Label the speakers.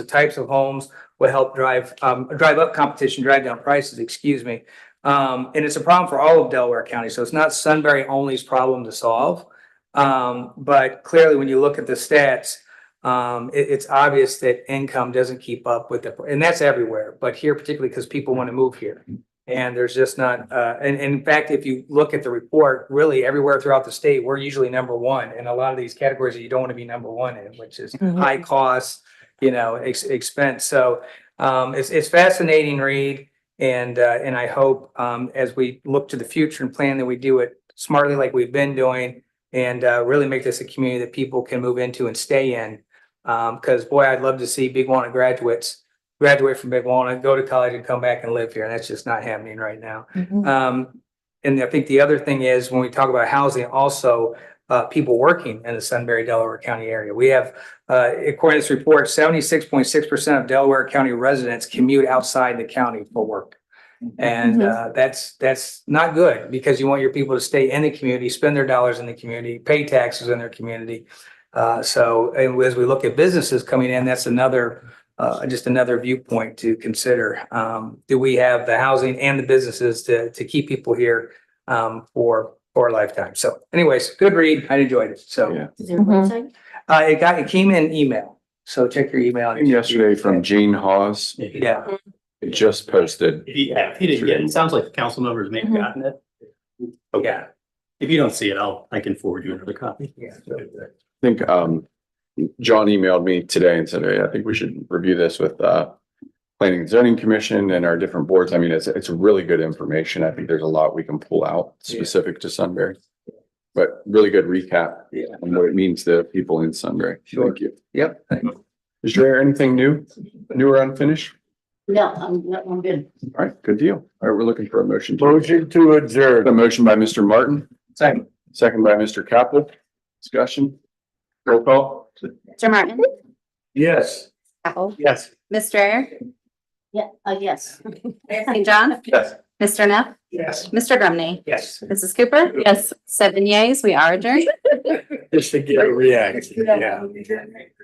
Speaker 1: the types of homes will help drive, um, drive up competition, drive down prices, excuse me. Um, and it's a problem for all of Delaware County, so it's not Sunbury only's problem to solve. Um, but clearly, when you look at the stats, um, it, it's obvious that income doesn't keep up with the, and that's everywhere, but here particularly because people want to move here. And there's just not, uh, and, and in fact, if you look at the report, really everywhere throughout the state, we're usually number one in a lot of these categories that you don't want to be number one in, which is
Speaker 2: Mhm.
Speaker 1: high costs, you know, ex- expense. So, um, it's, it's fascinating read. And, uh, and I hope, um, as we look to the future and plan that we do it smartly like we've been doing and, uh, really make this a community that people can move into and stay in. Um, cause boy, I'd love to see Big Walnut graduates graduate from Big Walnut, go to college and come back and live here. And that's just not happening right now.
Speaker 2: Mhm.
Speaker 1: Um, and I think the other thing is when we talk about housing, also, uh, people working in the Sunbury, Delaware County area. We have, uh, according to this report, seventy-six point six percent of Delaware County residents commute outside the county for work. And, uh, that's, that's not good because you want your people to stay in the community, spend their dollars in the community, pay taxes in their community. Uh, so, and as we look at businesses coming in, that's another, uh, just another viewpoint to consider. Um, do we have the housing and the businesses to, to keep people here, um, for, for a lifetime? So anyways, good read. I enjoyed it. So,
Speaker 3: Yeah.
Speaker 4: Is there a
Speaker 2: Mhm.
Speaker 4: website?
Speaker 1: uh, it got, it came in email. So check your email.
Speaker 3: Came Yesterday from Gene Hawes,
Speaker 1: Yeah,
Speaker 3: it just posted.
Speaker 5: If he, yeah, if he didn't get it, it sounds like the council members may have
Speaker 2: Mhm.
Speaker 5: gotten it. Okay,
Speaker 1: yeah,
Speaker 5: if you don't see it, I'll, I can forward you another copy.
Speaker 1: yeah.
Speaker 3: I think um John emailed me today and said, "Hey, I think we should review this with uh Planning and Zoning Commission and our different boards. I mean, it's it's really good information. I think there's a lot we can pull out specific to Sunbury. But really good recap
Speaker 1: Yeah.
Speaker 3: on what it means to people in Sunbury.
Speaker 1: Sure.
Speaker 3: Thank you.
Speaker 1: Yep.
Speaker 3: Is there anything new, new or unfinished?
Speaker 4: No, I'm, no, I'm good.
Speaker 3: All right, good deal. All right, we're looking for a motion. to-
Speaker 6: Motion to
Speaker 3: A
Speaker 6: adjourn.
Speaker 3: motion by Mr. Martin,
Speaker 1: Second.
Speaker 3: second by Mr. Capel. Discussion. Roll call.
Speaker 7: Mr. Martin?
Speaker 6: Yes.
Speaker 7: Apple?
Speaker 5: Yes.
Speaker 7: Ms. Strayer?
Speaker 4: Yeah, uh, yes.
Speaker 7: Mayor St. John?
Speaker 3: Yes.
Speaker 7: Mr. Neff?
Speaker 1: Yes.
Speaker 7: Mr. Grumney?
Speaker 1: Yes.
Speaker 7: Mrs. Cooper? Yes. Seven yeas, we are adjourned.
Speaker 6: Just to get a reaction, yeah.